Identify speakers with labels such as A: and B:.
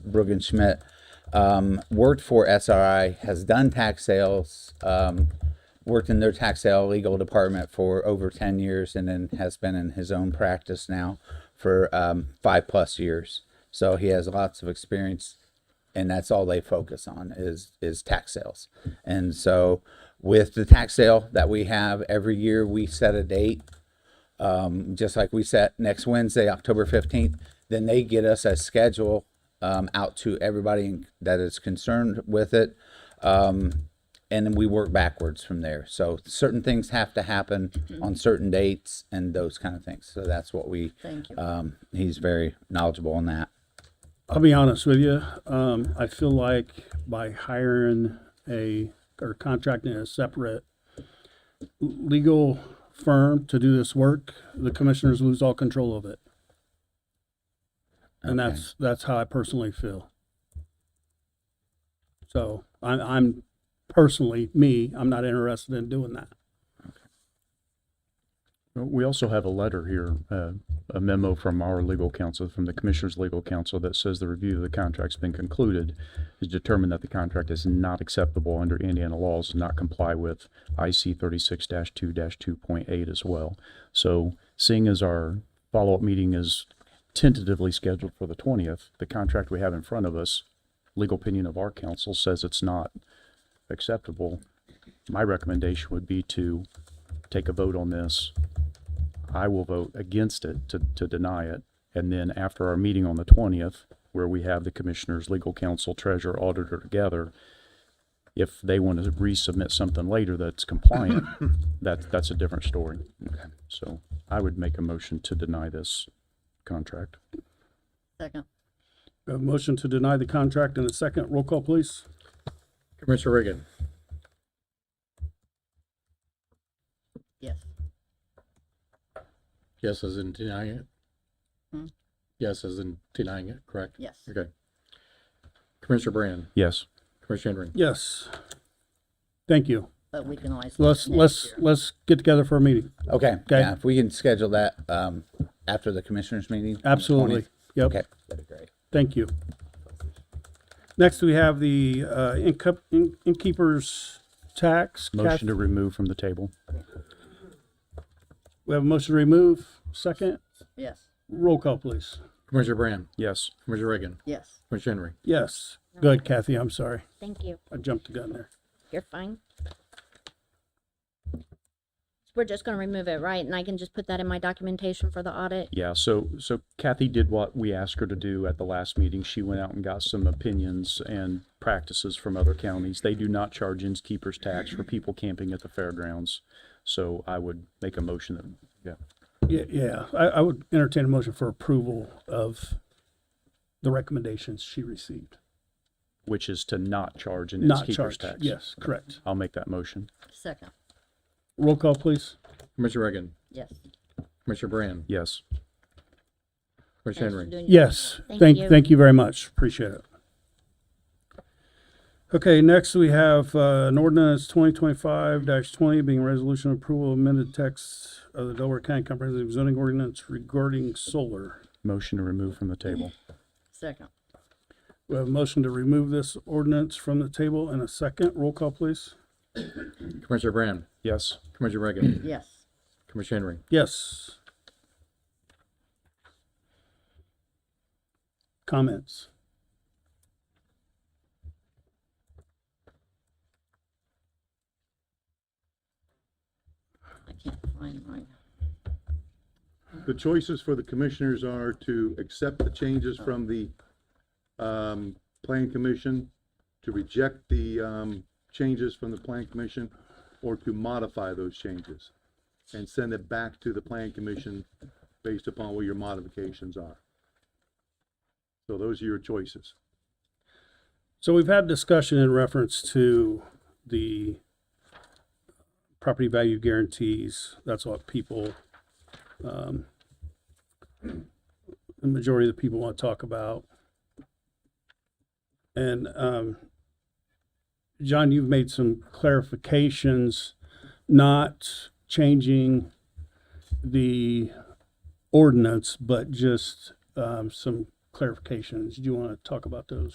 A: Bruggen Schmidt, um, worked for SRI, has done tax sales, um, worked in their tax sale legal department for over 10 years, and then has been in his own practice now for um, five plus years. So he has lots of experience and that's all they focus on is is tax sales. And so with the tax sale that we have every year, we set a date, um, just like we set next Wednesday, October fifteenth. Then they get us a schedule um, out to everybody that is concerned with it. Um, and then we work backwards from there. So certain things have to happen
B: Mm-hmm.
A: on certain dates and those kind of things. So that's what we.
B: Thank you.
A: Um, he's very knowledgeable on that.
C: I'll be honest with you. Um, I feel like by hiring a or contracting a separate legal firm to do this work, the commissioners lose all control of it. And
A: Okay.
C: that's that's how I personally feel. So I'm, I'm personally me. I'm not interested in doing that.
D: We also have a letter here, uh, a memo from our legal counsel, from the Commissioner's Legal Counsel, that says the review of the contract's been concluded, has determined that the contract is not acceptable under Indiana laws, and not comply with IC thirty-six two two point eight as well. So seeing as our follow-up meeting is tentatively scheduled for the twentieth, the contract we have in front of us, legal opinion of our counsel says it's not acceptable. My recommendation would be to take a vote on this, I will vote against it to, to deny it. And then after our meeting on the twentieth, where we have the commissioners, legal counsel, treasurer, auditor together, if they want to resubmit something later that's compliant, that's, that's a different story. So I would make a motion to deny this contract.
B: Second.
C: We have A motion to deny the contract and a second roll call, please.
E: Commissioner Reagan,
B: Yes.
E: yes as in denying it?
B: Hmm?
E: Yes as in denying it, correct?
B: Yes.
E: Okay. Commissioner Brand,
D: Yes.
E: Commissioner Henry,
C: Yes. Thank you.
B: But we can always. look
C: Let's
B: next
C: let's
B: year.
C: let's get together for a meeting.
A: Okay.
C: Okay.
A: Yeah, if we can schedule that um, after the commissioners meeting. on the
C: Absolutely.
A: 20th.
C: Yep.
A: Okay, that'd be great.
C: Thank you. Next, we have the uh, incup- in- innkeeper's tax. Kath-
D: Motion to remove from the table.
C: We have a motion to remove. Second,
B: Yes,
C: roll call, please.
E: Commissioner Brand,
D: Yes.
E: Commissioner Reagan,
B: yes.
E: Commissioner Henry.
C: Yes. Good, Kathy. I'm sorry.
F: Thank you.
C: I jumped the gun there.
F: You're fine. We're just gonna remove it, right? And I can just put that in my documentation for the audit?
D: Yeah, so, so Kathy did what we asked her to do at the last meeting. She went out and got some opinions and practices from other counties. They do not charge innkeeper's tax for people camping at the fairgrounds. So I would make a motion that, yeah,
C: Yeah, yeah. I, I would entertain a motion for approval of the recommendations she received.
D: which is to not charge an
C: Not
D: innkeeper's
C: charged.
D: tax.
C: Yes, correct.
D: I'll make that motion.
B: Second,
C: Roll call, please.
E: Commissioner Reagan,
B: yes.
E: Commissioner Brand,
D: Yes.
E: Commissioner
F: Thanks for
E: Henry.
F: doing your
C: Yes,
F: homework.
C: thank, thank you very much. Appreciate it. Okay, next we have uh, an ordinance twenty twenty-five twenty being resolution approval of amended text of the Delaware County Comprehensive Zoning Ordinance regarding solar.
D: Motion to remove from the table.
B: Second,
C: We have a motion to remove this ordinance from the table in a second. Roll call, please.
E: Commissioner Brand,
D: Yes.
E: Commissioner Reagan,
B: yes.
E: Commissioner Henry.
C: Yes. Comments?
B: I can't find mine.
G: The choices for the commissioners are to accept the changes from the, um, plan commission, to reject the, um, changes from the plan commission, or to modify those changes and send it back to the plan commission based upon what your modifications are. So those are your choices.
C: So we've had discussion in reference to the property value guarantees. That's what people, um, the majority of the people want to talk about. And, um, John, you've made some clarifications, not changing the ordinance, but just, um, some clarifications. Do you want to talk about those?